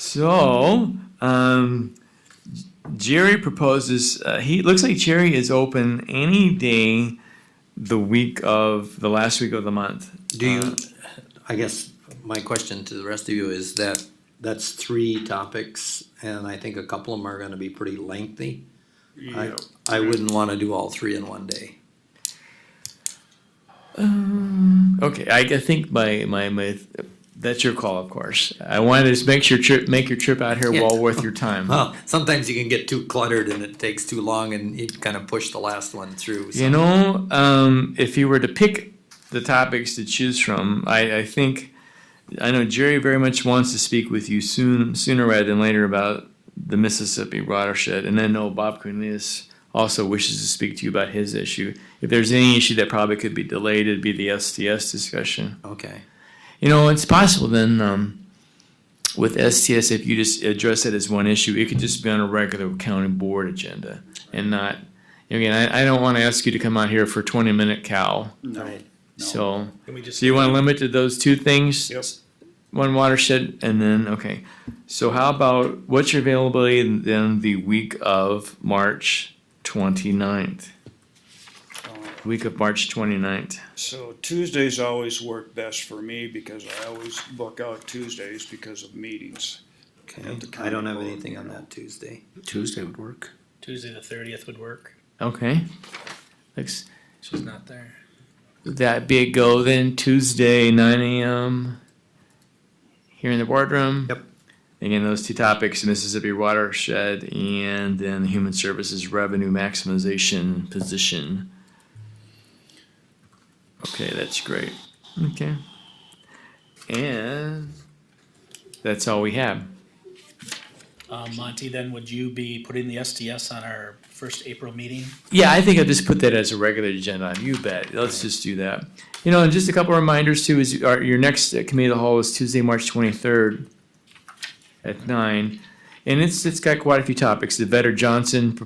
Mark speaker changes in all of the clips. Speaker 1: So, um, Jerry proposes, uh, he, looks like Jerry is open any day the week of, the last week of the month.
Speaker 2: Do
Speaker 1: Uh,
Speaker 2: you, I guess my question to the rest of you is that, that's three topics, and I think a couple of them are gonna be pretty lengthy. I, I wouldn't wanna do all three in one day.
Speaker 1: Okay, I, I think my, my, my, that's your call, of course. I wanted to just make your trip, make your trip out here
Speaker 2: Yeah.
Speaker 1: well worth your time.
Speaker 2: Well, sometimes you can get too cluttered and it takes too long and you kind of push the last one through, so.
Speaker 1: You know, um, if you were to pick the topics to choose from, I, I think I know Jerry very much wants to speak with you soon, sooner rather than later, about the Mississippi watershed, and I know Bob Cornelius also wishes to speak to you about his issue. If there's any issue that probably could be delayed, it'd be the STS discussion.
Speaker 2: Okay,
Speaker 1: You know, it's possible then um, with STS if you just address it as one issue, it could just be on a regular county board agenda and not. Again, I, I don't want to ask you to come out here for twenty minute cow.
Speaker 3: No.
Speaker 1: So,
Speaker 3: Can we just?
Speaker 1: so you want to limit to those two things?
Speaker 3: Yep.
Speaker 1: One watershed and then okay. So how about what's your availability then the week of March 29th? Week of March 29th.
Speaker 3: So Tuesdays always work best for me because I always book out Tuesdays because of meetings.
Speaker 2: okay, I don't have anything on that Tuesday.
Speaker 4: Tuesday would work.
Speaker 5: Tuesday the thirtieth would work.
Speaker 1: Okay. Thanks.
Speaker 5: She's not there.
Speaker 1: Would that be a go then Tuesday, nine AM, here in the boardroom?
Speaker 2: Yep.
Speaker 1: Again, those two topics, Mississippi watershed and then human services revenue maximization position. Okay, that's great. Okay. And that's all we have.
Speaker 5: Um, Monty, then would you be putting the STS on our first April meeting?
Speaker 1: Yeah, I think I'll just put that as a regular agenda. item. You bet. Let's just do that. You know, and just a couple of reminders too, is our, your next uh, committee of the whole is Tuesday, March twenty-third at nine. And it's, it's got quite a few topics. The Vetter Johnson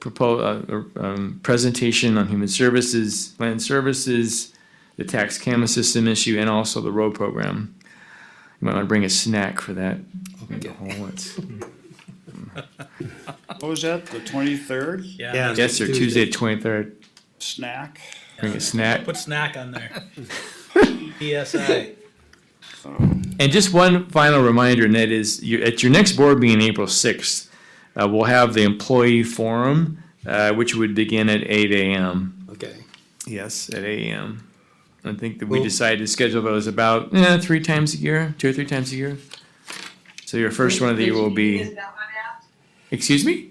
Speaker 1: propos, uh, um, presentation on human services, land services, the tax camera system issue, and also the road program. You might want to bring a snack for that. Oh, it's-
Speaker 3: What was that, the twenty-third
Speaker 2: Yeah.
Speaker 1: Yes, sir, Tuesday, twenty-third.
Speaker 3: snack?
Speaker 1: Bring a snack.
Speaker 5: Put snack on there. PSI.
Speaker 1: And just one final reminder, and that is, you, at your next board meeting, April sixth, uh, we'll have the employee forum, uh, which would begin at eight AM.
Speaker 2: Okay,
Speaker 1: Yes. At eight AM. I think that we
Speaker 2: Well-
Speaker 1: decided to schedule those about, eh, three times a year, two or three times a year. So your first one of the year will
Speaker 6: Which meeting
Speaker 1: be,
Speaker 6: is that one at?
Speaker 1: excuse me?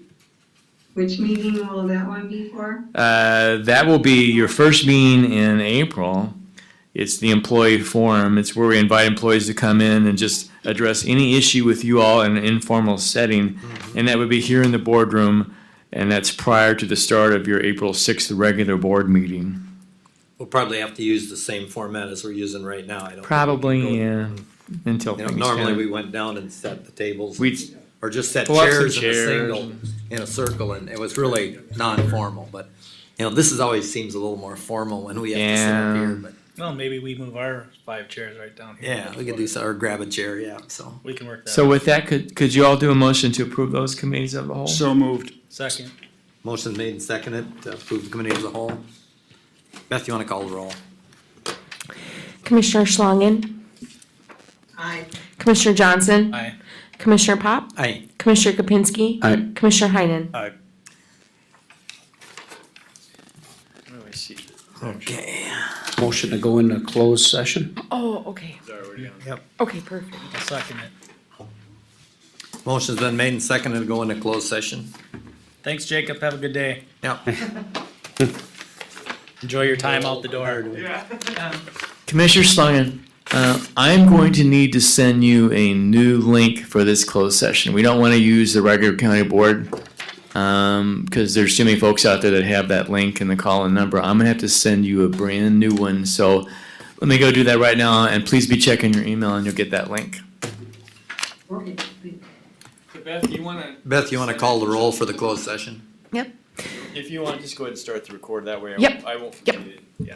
Speaker 6: Which meeting will that one be for?
Speaker 1: Uh, that will be your first meeting in April. It's the employee forum. It's where we invite employees to come in and just address any issue with you all in an informal setting.
Speaker 2: Mm-hmm.
Speaker 1: And that would be here in the boardroom, and that's prior to the start of your April sixth regular board meeting.
Speaker 2: we'll probably have to use the same format as we're using right now, I don't. think we can go-
Speaker 1: Probably, yeah, until
Speaker 2: You know,
Speaker 1: things
Speaker 2: normally we
Speaker 1: kind
Speaker 2: went down and set the tables.
Speaker 1: we
Speaker 2: or just set
Speaker 1: Pull up some
Speaker 2: chairs in a
Speaker 1: chairs
Speaker 2: single, in a circle, and it was really non-formal, but, you know, this is always seems a little more formal when we have to sit up
Speaker 1: Yeah.
Speaker 2: here, but,
Speaker 5: Well, maybe we move our five chairs right down here.
Speaker 2: yeah, we could do, so- or grab a chair, yeah, so.
Speaker 5: We can work that.
Speaker 1: So with that, could, could you all do a motion to approve those committees of the whole?
Speaker 3: So moved.
Speaker 5: Second,
Speaker 2: Motion made and seconded, to approve the committee as a whole. Beth, you wanna call the roll?
Speaker 7: Commissioner Schlangen,
Speaker 6: Aye.
Speaker 7: Commissioner Johnson,
Speaker 5: aye.
Speaker 7: Commissioner Pop,
Speaker 2: Aye.
Speaker 7: Commissioner Kapinski,
Speaker 4: Aye.
Speaker 7: Commissioner Heinen.
Speaker 3: I,
Speaker 2: Okay.
Speaker 4: Motion to go into closed session.
Speaker 7: Oh, okay.
Speaker 2: Yep.
Speaker 7: Okay, perfect.
Speaker 5: I'll second it.
Speaker 2: Motion's been made and seconded to go into closed session.
Speaker 5: Thanks, Jacob. Have a good day.
Speaker 2: Yep.
Speaker 5: Enjoy your time out the door.
Speaker 1: Commissioner Schlangen, uh, I'm going to need to send you a new link for this closed session. We don't want to use the regular county board because there's too many folks out there that have that link and the call-in number. I'm gonna have to send you a brand new one. So let me go do that right now, and please be checking your email, and you'll get that link.
Speaker 6: Okay, thank
Speaker 1: Beth, you wanna,
Speaker 2: Beth, you wanna call the roll for the closed session?
Speaker 1: if you want, just go ahead and start the record. That way,
Speaker 7: Yep.
Speaker 1: I won't
Speaker 7: forget
Speaker 1: it. Yeah.